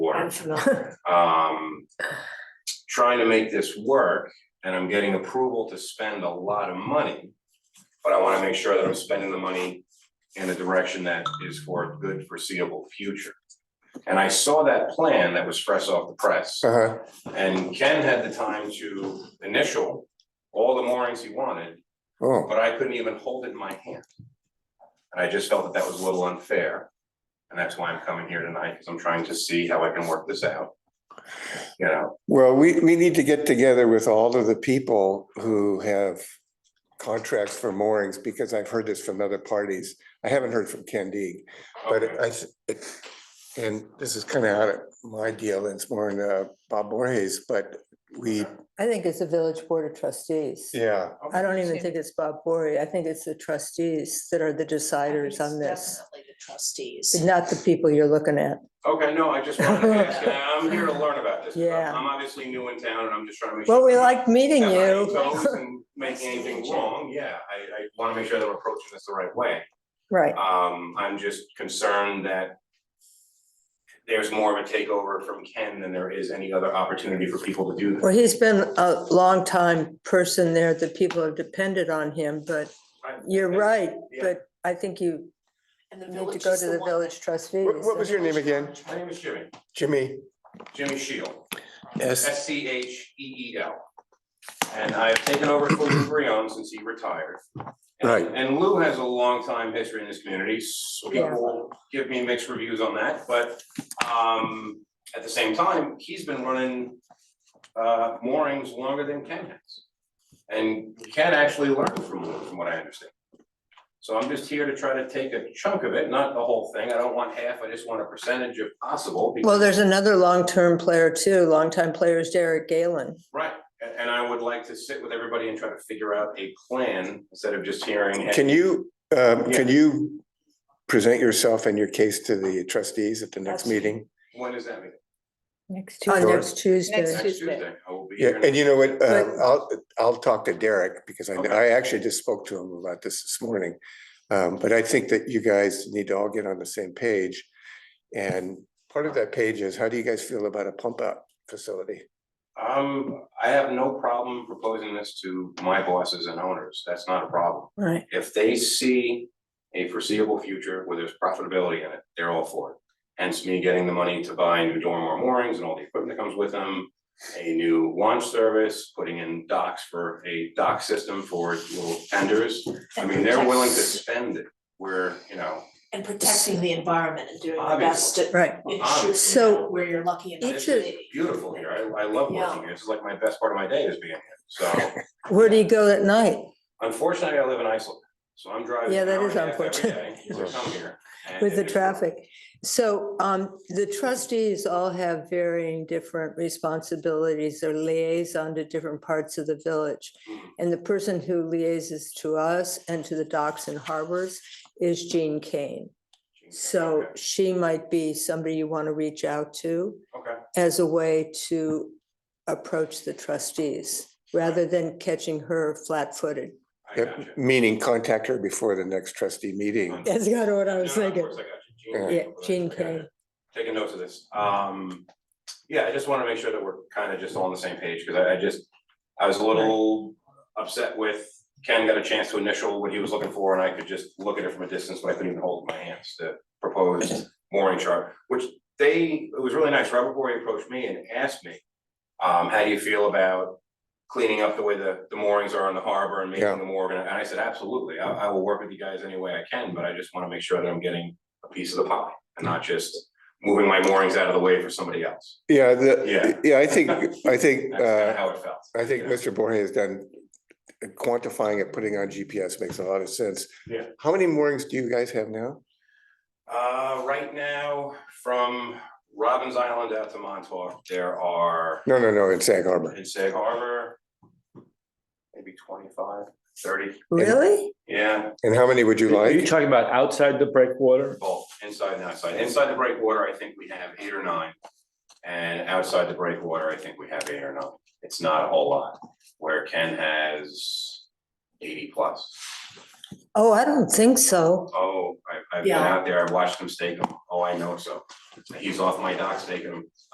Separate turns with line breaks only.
I'm familiar.
um, trying to make this work, and I'm getting approval to spend a lot of money. But I wanna make sure that I'm spending the money in a direction that is for a good foreseeable future. And I saw that plan that was fresh off the press,
Uh-huh,
and Ken had the time to initial all the moorings he wanted,
oh,
but I couldn't even hold it in my hand. And I just felt that that was a little unfair, and that's why I'm coming here tonight, because I'm trying to see how I can work this out. You know,
well, we, we need to get together with all of the people who have contracts for moorings, because I've heard this from other parties. I haven't heard from Candide, but uh,
Okay.
I, th- it, and this is kind of out of my deal, and it's more in uh, Bob Borges, but we,
I think it's the village board of trustees.
yeah,
I don't even think it's Bob Bory. I think it's the trustees that are the deciders on this,
Definitely the trustees.
not the people you're looking at.
Okay, no, I just wanted to ask, and I'm here to learn about this. I'm-
Yeah.
I'm obviously new in town and I'm just trying to make sure.
Well, we like meeting
that I'm
you.
not on my toes and Making anything wrong, yeah, I, I wanna make sure that we're approaching this the right way.
Right.
Um, I'm just concerned that there's more of a takeover from Ken than there is any other opportunity for people to do this.
Well, he's been a long time person there. The people have depended on him, but
Right.
you're right.
Yeah.
But I think you
And the
need to
village
go
is
to the
one
village trustees.
What- what was your name again?
My name is Jimmy,
Jimmy,
Jimmy Shield,
S,
S C H E E L. And I've taken over for Lou Breon since he retired. And-
Right.
And Lou has a long time history in this community, so
Yeah.
people give me mixed reviews on that, but um at the same time, he's been running uh moorings longer than Ken has. And Ken actually learned from Lou, from what I understand. So I'm just here to try to take a chunk of it, not the whole thing, I don't want half, I just want a percentage if possible, because
Well, there's another long-term player too. Longtime player is Derek Galen.
Right, a- and I would like to sit with everybody and try to figure out a plan instead of just hearing.
can you, um, can you present yourself and your case to the trustees at the next
That's-
meeting?
When is that meeting?
Next
Tuesday.
next Tuesday.
Next-
Next
Tuesday.
Tuesday, I will be
Yeah,
here.
and you know what, uh,
But-
I'll, I'll talk to Derek because I,
Okay.
I actually just spoke to him about this this morning. Um, but I think that you guys need to all get on the same page. And part of that page is, how do you guys feel about a pump out facility?
Um, I have no problem proposing this to my bosses and owners, that's not a problem.
Right.
If they see a foreseeable future where there's profitability in it, they're all for it. Hence me getting the money to buy new dorm or moorings and all the equipment that comes with them, a new launch service, putting in docks for a dock system for little tenders. I mean, they're willing to spend it where, you know,
And protecting the environment and doing the best at
Right.
ensuring
So-
that where you're lucky enough
this
Each
to
of-
is
be.
beautiful here. I, I love working here. It's like my best part of my day is being here. So
Where do you go at night?
unfortunately, I live in Iceland, so I'm driving.
Yeah,
an
that
hour
is
and a half every
unfortunate.
day To come here. and
With the
it is-
traffic. So um, the trustees all have varying different responsibilities. They're liaison to different parts of the village.
Mm-hmm.
And the person who liaises to us and to the docks and harbors is Jean Kane. So
Okay,
she might be somebody you want to reach out to
Okay,
as a way to approach the trustees, rather than catching her flat-footed.
I
Yep,
got you.
Meaning contact her before the next trustee meeting.
That's kind of what I was
No, no, of
thinking.
course, I got you.
Yeah.
Jean Kane.
Yeah, Jean
I got
Kane.
it. Taking notes of this. Um, yeah, I just want to make sure that we're kind of just all on the same page because I, I just, I was a little upset with Ken got a chance to initial what he was looking for and I could just look at it from a distance, but I couldn't even hold it in my hands to propose mooring chart, which they, it was really nice. Robert Bory approached me and asked me, um, how do you feel about cleaning up the way the, the moorings are in the harbor and making
Yeah.
them more organized? And I said, absolutely. I, I will work with you guys any way I can, but I just want to make sure that I'm getting a piece of the pie and not just moving my moorings out of the way for somebody else.
Yeah,
Yeah.
the, yeah, I think, I
That's
think,
kind of
uh,
how it felt.
I think
Yeah.
Mr. Borges has done quantifying it, putting on GPS makes a lot of sense.
Yeah.
How many moorings do you guys have now?
Uh, right now, from Robbins Island out to Montauk, there are
No, no, no, in Sag Harbor.
in Sag Harbor, maybe 25, 30.
Really?
yeah,
And how many would you
Are you
like?
talking about outside the breakwater?
both inside and outside. Inside the breakwater, I think we have eight or nine. And outside the breakwater, I think we have eight or nine. It's not a whole lot, where Ken has eighty plus.
Oh, I don't think so.
Oh, I, I've been
Yeah.
out there, I've watched him stake them. Oh, I know so. He's off my dock staking them.